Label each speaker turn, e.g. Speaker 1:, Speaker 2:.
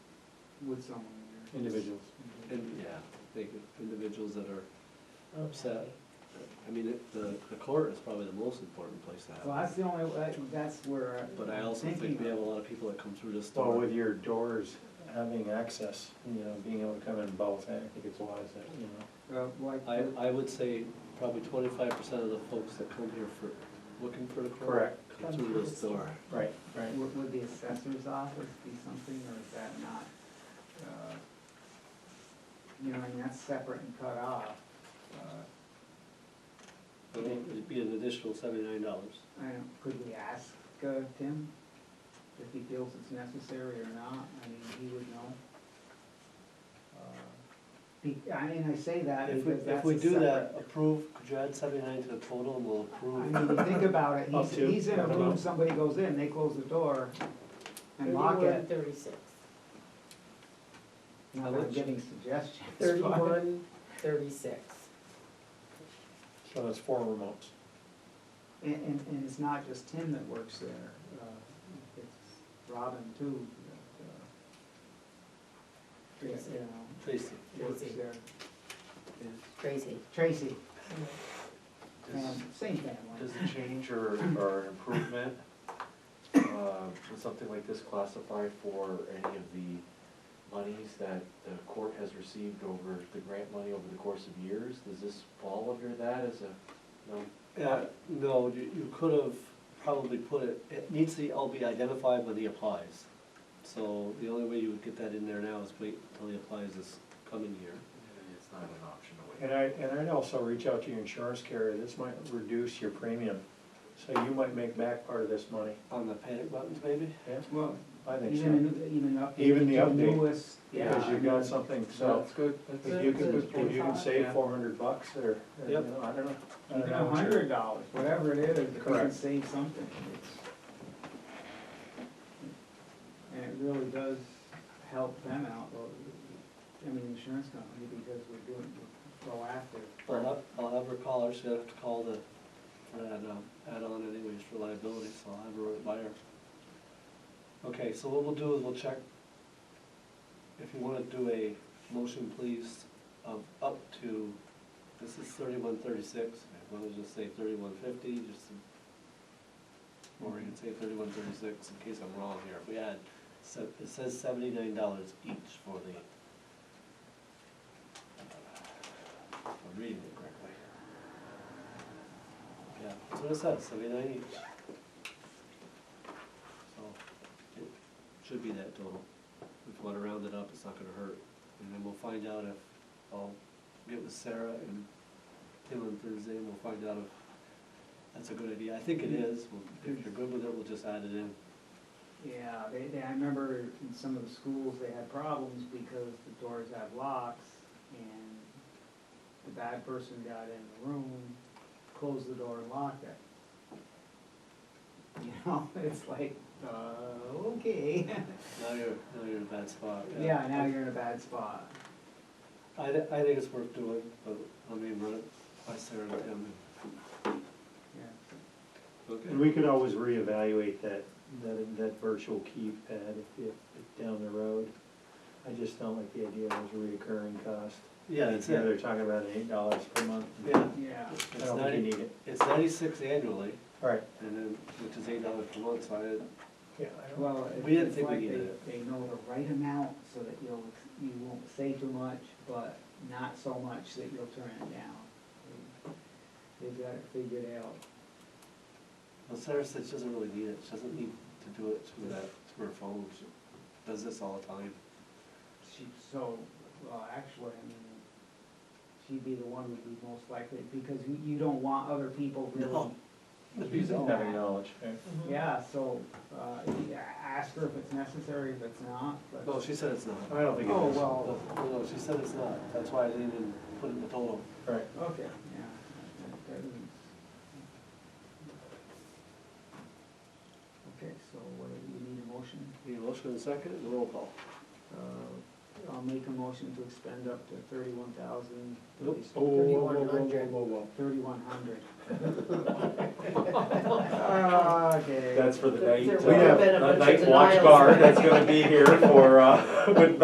Speaker 1: with someone in there.
Speaker 2: Individuals.
Speaker 1: Individual.
Speaker 2: And, yeah, they, could- individuals that are upset.
Speaker 3: Oh,
Speaker 4: Okay.
Speaker 2: I mean, it- the, the court is probably the most important place to have.
Speaker 1: Well,
Speaker 2: it.
Speaker 1: that's the only, way- that's where I'm
Speaker 2: But I also
Speaker 1: thinking
Speaker 2: think we have a
Speaker 1: of-
Speaker 2: lot of people that come through this
Speaker 5: Well,
Speaker 2: door.
Speaker 5: with your doors,
Speaker 4: Having access, you know, being able to come in both, eh,
Speaker 5: I think it's wise that,
Speaker 4: you know.
Speaker 1: uh, like,
Speaker 2: I, I would say probably twenty-five percent of the folks that come here for, looking for the court.
Speaker 5: Correct.
Speaker 2: Come through this door.
Speaker 4: Right, right.
Speaker 1: would, would the assessor's office be something, or is that not? uh, You know, I mean, that's separate and cut off. Uh,
Speaker 2: It'd be an additional seventy-nine dollars.
Speaker 1: I don't, could we ask uh, Tim if he feels it's necessary or not? I mean, he would know. Uh, be- I mean, I say that
Speaker 2: If we,
Speaker 1: because
Speaker 2: if
Speaker 1: that's
Speaker 2: we
Speaker 1: a
Speaker 2: do that,
Speaker 1: separate-
Speaker 2: approve, could you add seventy-nine to the total and we'll
Speaker 1: I
Speaker 2: approve?
Speaker 1: mean, you think about it,
Speaker 4: Up
Speaker 1: he's,
Speaker 4: to,
Speaker 1: he's in
Speaker 4: I
Speaker 1: a
Speaker 4: don't know.
Speaker 1: room, somebody goes in, they close the door and lock it.
Speaker 3: Thirty-six.
Speaker 1: Now
Speaker 2: How
Speaker 1: I'm
Speaker 2: much?
Speaker 1: giving suggestions. but-
Speaker 3: Thirty-one, thirty-six.
Speaker 4: So that's four remotes.
Speaker 1: And, and, and it's not just Tim that works there, uh, it's Robin too, that, uh, you
Speaker 3: Tracy.
Speaker 1: know,
Speaker 2: Tracy,
Speaker 1: works
Speaker 3: Tracy.
Speaker 1: there.
Speaker 2: is,
Speaker 3: Crazy.
Speaker 1: Tracy,
Speaker 5: does,
Speaker 1: fam- same
Speaker 5: does
Speaker 1: family.
Speaker 5: a change or, or an improvement, uh, would something like this classify for any of the monies that the court has received over, the grant money over the course of years? Does this fall under that as a, no?
Speaker 2: uh, no, you, you could have probably put it, it needs to all be identified when he applies. So the only way you would get that in there now is wait until he applies this coming year.
Speaker 5: It's not an option to
Speaker 4: And I, and I'd also reach out to your insurance carrier, this might reduce your premium, so you might make back part of this money,
Speaker 2: On the panic buttons, maybe?
Speaker 4: yeah,
Speaker 1: Well,
Speaker 4: I think so.
Speaker 1: even, even up.
Speaker 4: Even the
Speaker 1: to
Speaker 4: update,
Speaker 1: newest, yeah.
Speaker 4: Because
Speaker 1: I
Speaker 4: you've got
Speaker 1: mean,
Speaker 4: something,
Speaker 5: No,
Speaker 4: so,
Speaker 5: it's good. That's
Speaker 4: if
Speaker 5: it.
Speaker 4: you
Speaker 5: It's
Speaker 4: can,
Speaker 5: good.
Speaker 4: if you can save
Speaker 5: Yeah.
Speaker 4: four hundred bucks, or, or, you
Speaker 2: Yep.
Speaker 4: know, I don't know. I don't
Speaker 1: Even
Speaker 4: know
Speaker 1: a
Speaker 4: what your-
Speaker 1: hundred dollars, whatever it is, if we can
Speaker 4: Correct.
Speaker 1: save something, it's. And it really does help them out, well, I mean, the insurance company, because we're doing we're proactive.
Speaker 2: I'll have, I'll have her call her, she'll have to call the, for that, um, add-on anyways for liability, so I'll have her run it by her. Okay, so what we'll do is we'll check, if you wanna do a motion, please, of up to, this is thirty-one thirty-six, if you wanna just say thirty-one fifty, just to- or you can say thirty-one thirty-six, in case I'm wrong here, if we add, so, it says seventy-nine dollars each for the, if I'm reading it correctly. Yeah, that's what it says, seventy-nine each. So, it should be that total. If you wanna round it up, it's not gonna hurt. And then we'll find out if, I'll get with Sarah and Tim on Thursday, and we'll find out if that's a good idea. I think it is. We'll- If you're good with it, we'll just add it in.
Speaker 1: Yeah, they, they, I remember in some of the schools, they had problems because the doors had locks and the bad person got in the room, closed the door and locked it. You know, it's like, uh, okay,
Speaker 2: Now you're, now you're in a bad spot.
Speaker 1: yeah, now you're in a bad spot.
Speaker 2: I, thi- I think it's worth doing, but I mean, run it by Sarah and Tim.
Speaker 1: Yeah.
Speaker 4: And we could always reevaluate that, that, that virtual keypad if, if, if down the road. I just don't like the idea of those reoccurring cost.
Speaker 2: Yeah, it's,
Speaker 4: You know,
Speaker 2: yeah,
Speaker 4: They're talking about eight dollars per month.
Speaker 1: Yeah,
Speaker 4: I
Speaker 2: it's
Speaker 4: don't think you
Speaker 2: ninety,
Speaker 4: need it.
Speaker 2: it's ninety-six annually,
Speaker 4: All right.
Speaker 2: and then, which is eight dollars per month, so I,
Speaker 4: Yeah.
Speaker 1: well, it-
Speaker 2: We didn't
Speaker 1: it's
Speaker 2: think we
Speaker 1: like they,
Speaker 2: needed it.
Speaker 1: they know the right amount so that you'll, you won't say too much, but not so much that you'll turn it down. They've got it figured out.
Speaker 2: Well, Sarah said she doesn't really need it, she doesn't need to do it through that, through her phone, she does this all the time.
Speaker 1: She, so, well, actually, I mean, she'd be the one who'd be most likely, because you, you don't want other people really.
Speaker 2: No.
Speaker 1: Oh.
Speaker 4: Having knowledge.
Speaker 1: Yeah, so, uh, yeah, ask her if it's necessary, if it's not, but.
Speaker 2: No, she said it's not.
Speaker 4: I don't think it
Speaker 1: Oh,
Speaker 4: is.
Speaker 1: well.
Speaker 2: No, no, she said it's not, that's why I didn't even put it in the total.
Speaker 4: Right.
Speaker 1: Okay, yeah. that- that is- Okay, so what, do you need a motion?
Speaker 2: Need a motion and a second, and a roll call.
Speaker 1: Uh, I'll make a motion to expend up to thirty-one thousand,
Speaker 4: Oh, Whoa, whoa, whoa, whoa, whoa, whoa,
Speaker 3: 3100.
Speaker 4: whoa.
Speaker 1: thirty-one hundred. Okay.
Speaker 5: That's for the night,
Speaker 3: There
Speaker 5: uh,
Speaker 3: would've been a
Speaker 5: the
Speaker 3: bunch of
Speaker 4: uh,
Speaker 5: night watch
Speaker 3: denials.
Speaker 5: guard that's gonna be here for, uh, with